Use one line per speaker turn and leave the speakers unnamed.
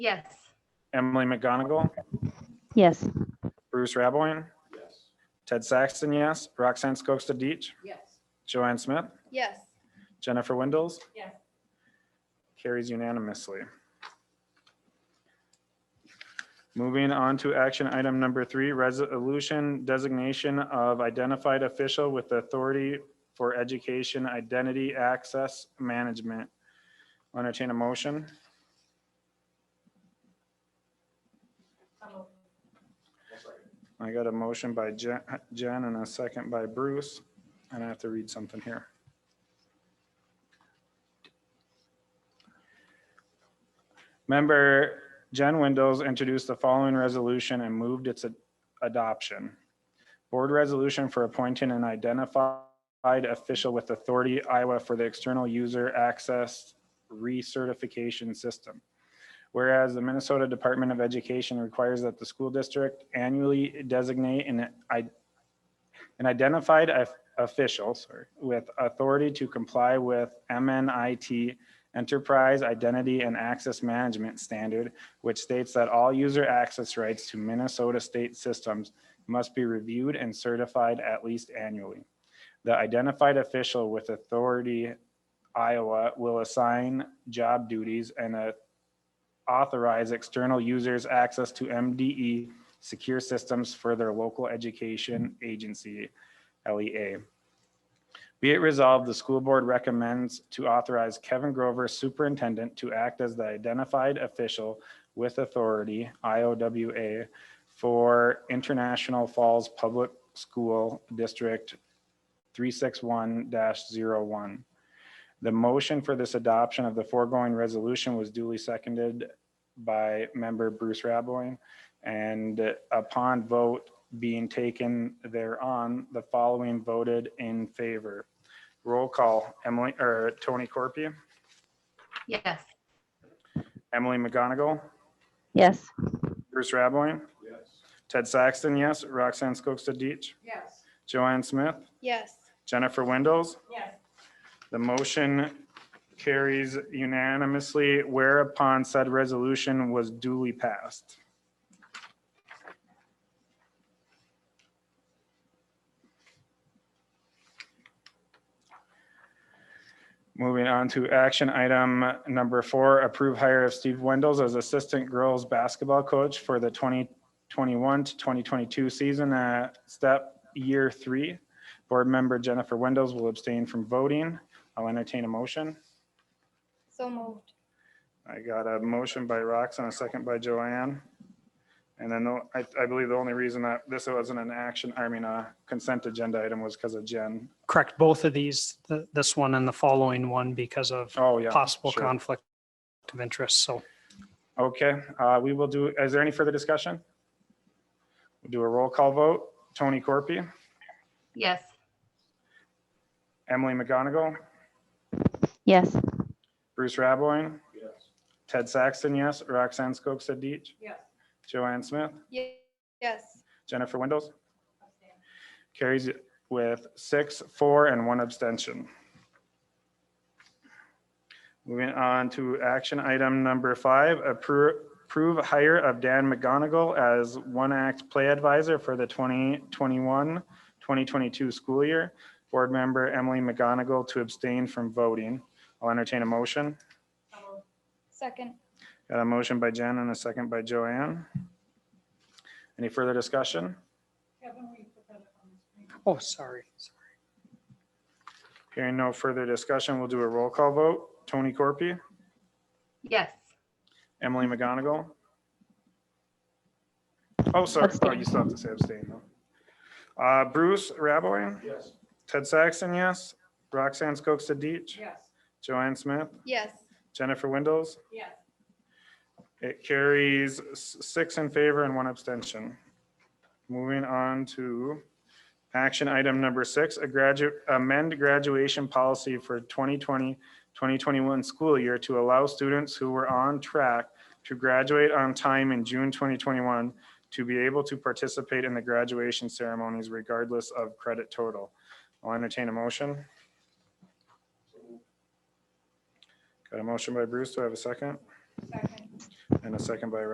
Yes.
Emily McGonigal,
Yes.
Bruce Raboyne, Ted Saxton, yes. Roxanne Schockstead Deach,
Yes.
Joanne Smith,
Yes.
Jennifer Windows.
Yes.
Carries unanimously. Moving on to action item number three, resolution designation of identified official with authority for education identity access management. I'll Entertain a motion. I got a motion by Jen Jen and a second by Bruce, and I have to read something here. Member Jen Windows introduced the following resolution and moved its ad- adoption. Board resolution for appointing an identified official with authority Iowa for the external user access recertification system. Whereas the Minnesota Department of Education requires that the school district annually designate an i- an identified of- official, sorry, with authority to comply with MNIT Enterprise Identity and Access Management Standard, which states that all user access rights to Minnesota state systems must be reviewed and certified at least annually. The identified official with authority Iowa will assign job duties and uh, authorize external users access to MDE secure systems for their local education agency, E LEA. Be it resolved, the school board recommends to authorize Kevin Grover, superintendent, to act as the identified official with authority, IOWA, for International Falls Public School District 361-01. The motion for this adoption of the foregoing resolution was duly seconded by member Bruce Raboy. And upon vote being taken thereon, the following voted in favor. Roll call, Emily, or Tony Corpia,
Yes.
Emily McGonigal,
Yes.
Bruce Raboy, Ted Saxton, yes, Roxanne Schockstead Deach,
Yes.
Joanne Smith,
Yes.
Jennifer Windows,
Yes.
The motion carries unanimously whereupon said resolution was duly passed. Moving on to action item number four, approve hire of Steve Wendels as assistant girls basketball coach for the 2021 to 2022 season at step year three. Board member Jennifer Windows will abstain from voting. I'll entertain a motion.
So moved.
I got a motion by Roxanne, a second by Joanne. And then the- I, I believe the only reason that this wasn't an action, I mean, a consent agenda item was because of Jen.
Correct, both of these, th- this one and the following one because of
Oh, yeah.
possible
sure.
conflict of interest. So
Okay, uh, we will do, is there any further discussion? We'll Do a roll call vote. Tony Corpy,
Yes.
Emily McGonigal,
Yes.
Bruce Raboyne, Ted Saxton, yes, Roxanne Schockstead Deach,
Yes.
Joanne Smith,
Yes.
Jennifer Windows. Carries with six, four, and one abstention. Moving on to action item number five, appro- approve hire of Dan McGonigal as One Act Play Advisor for the 2021, 2022 school year. Board member Emily McGonigal to abstain from voting. I'll entertain a motion.
Second.
Got a motion by Jen and a second by Joanne. Any further discussion?
Oh, sorry.
Hearing no further discussion, we'll do a roll call vote. Tony Corpy,
Yes.
Emily McGonigal. Oh, sorry, oh, you still have to say abstain though. Uh, Bruce Raboy,
Yes.
Ted Saxon, yes. Roxanne Schockstead Deach,
Yes.
Joanne Smith,
Yes.
Jennifer Windows.
Yes.
It carries s- six in favor and one abstention. Moving on to action item number six, a graduate, amend graduation policy for 2020, 2021 school year to allow students who were on track to graduate on time in June 2021 to be able to participate in the graduation ceremonies regardless of credit total. I'll entertain a motion. Got a motion by Bruce. Do I have a second?
Second.
and a second by